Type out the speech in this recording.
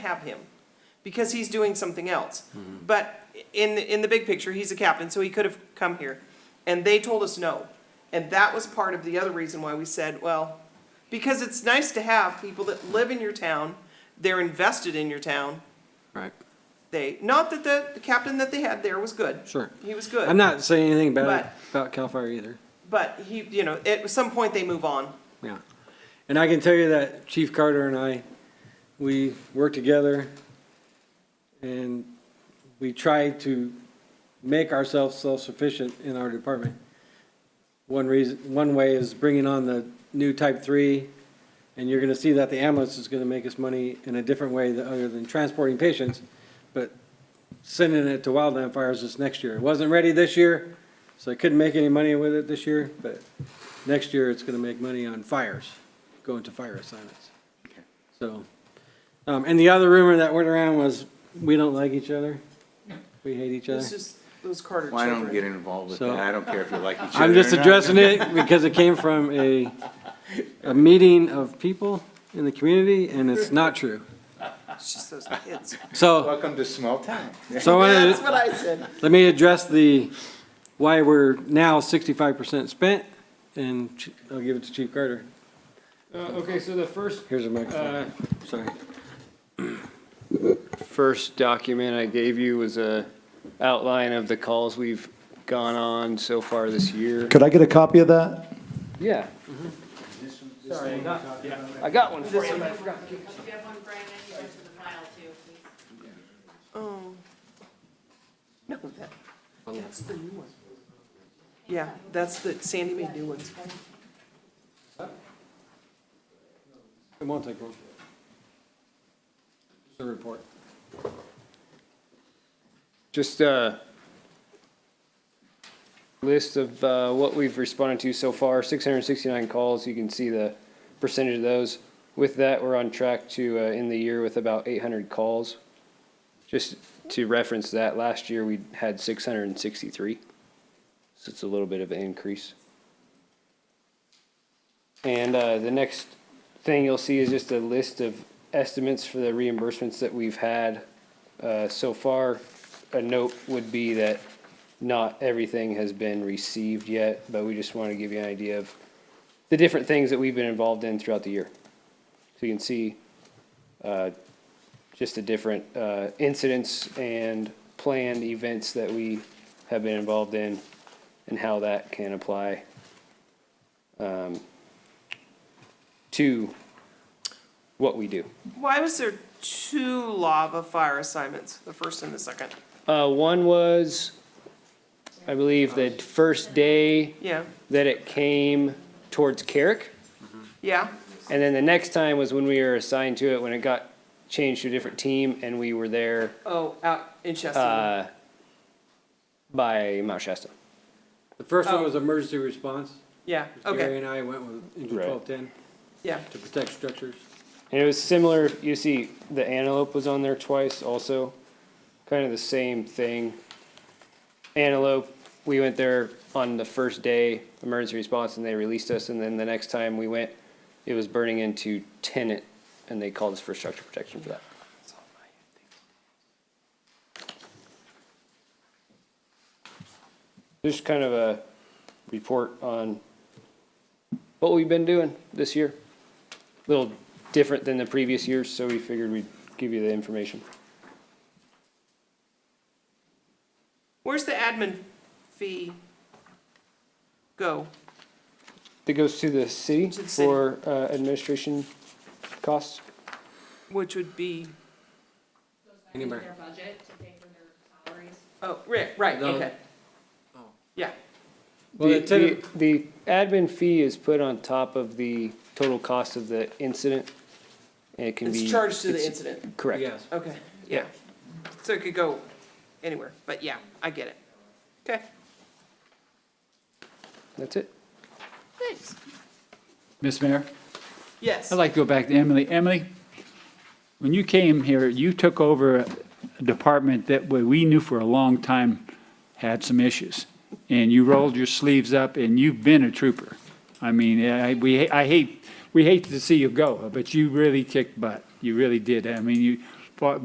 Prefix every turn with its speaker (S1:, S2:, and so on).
S1: have him because he's doing something else.
S2: Mm-hmm.
S1: But in, in the big picture, he's a captain, so he could have come here. And they told us no. And that was part of the other reason why we said, well, because it's nice to have people that live in your town, they're invested in your town.
S3: Right.
S1: They, not that the, the captain that they had there was good.
S3: Sure.
S1: He was good.
S3: I'm not saying anything bad
S1: But-
S3: about Cal Fire either.
S1: But he, you know, at some point they move on.
S3: Yeah. And I can tell you that Chief Carter and I, we work together and we try to make ourselves self-sufficient in our department. One reason, one way is bringing on the new type three and you're gonna see that the ambulance is gonna make us money in a different way than, other than transporting patients. But sending it to wildland fires is next year. It wasn't ready this year, so I couldn't make any money with it this year, but next year it's gonna make money on fires, going to fire assignments. So, um, and the other rumor that went around was, we don't like each other, we hate each
S1: It's
S3: other.
S1: just those Carter
S2: Well, I
S1: children.
S2: don't get involved with
S3: So-
S2: that. I don't care if you like each other.
S3: I'm just
S2: or not.
S3: addressing it because it came from a, a meeting of people in the community and it's not true.
S1: It's just those kids.
S3: So,
S2: Welcome to small town.
S3: so I wanted
S1: That's
S3: to-
S1: what I said.
S3: let me address the, why we're now sixty-five percent spent and Ch- I'll give it to Chief Carter.
S4: Uh, Okay, so the first,
S3: Here's a microphone,
S4: uh,
S3: sorry.
S4: first document I gave you was a outline of the calls we've gone on so far this year.
S5: Could I get a copy of that?
S4: Yeah. Mm-hmm. I got one for you.
S6: Do you have one, Brian, I can go to the file too, please?
S1: Oh. No, that, that's the new one. Yeah, that's the, Sandy made new ones.
S3: It won't take long. Just a report.
S4: Just a list of uh, what we've responded to so far, 669 calls. You can see the percentage of those. With that, we're on track to uh, end the year with about 800 calls. Just to reference that, last year we had 663. So it's a little bit of an increase. And uh, the next thing you'll see is just a list of estimates for the reimbursements that we've had uh, so far. A note would be that not everything has been received yet, but we just want to give you an idea of the different things that we've been involved in throughout the year. So you can see uh, just the different uh, incidents and planned events that we have been involved in and how that can apply um, to what we do.
S1: Why was there two lava fire assignments, the first and the second?
S4: Uh, one was, I believe, the first day
S1: Yeah,
S4: that it came towards Carrick.
S1: yeah,
S4: And then the next time was when we were assigned to it, when it got changed to a different team and we were there,
S1: oh, out in Chester.
S4: uh, by Mount Shasta.
S3: The first one
S1: Oh.
S3: was emergency response.
S1: Yeah,
S3: Gary
S1: okay,
S3: and I went with engine
S4: Right.
S3: twelve ten
S1: yeah,
S3: to protect structures.
S4: And it was similar, you see, the antelope was on there twice also, kind of the same thing. Antelope, we went there on the first day, emergency response, and they released us, and then the next time we went, it was burning into tenant, and they called us for structure protection for that. Just kind of a report on what we've been doing this year little different than the previous years, so we figured we'd give you the information.
S1: where's the admin fee go?
S4: That goes to the city
S1: To the city.
S4: for uh, administration costs.
S1: Which would be,
S6: Goes back
S3: Anywhere.
S6: into their budget to pay for their salaries.
S1: oh, right, right,
S3: No.
S1: okay.
S4: Oh.
S1: Yeah,
S3: Well,
S4: The-
S3: the tenant-
S4: The the admin fee is put on top of the total cost of the incident, and it can be.
S1: it's charged to the
S4: it's-
S1: incident,
S4: Correct.
S3: Yes.
S1: okay,
S4: Yeah.
S1: so it could go anywhere, but yeah, I get it. Okay,
S4: That's it.
S1: thanks.
S7: Miss Mayor,
S1: Yes.
S7: I'd like to go back to Emily. Emily, when you came here, you took over a department that we- we knew for a long time had some issues. And you rolled your sleeves up and you've been a trooper. I mean, I, we, I hate, we hate to see you go, but you really kicked butt. You really did. I mean, you,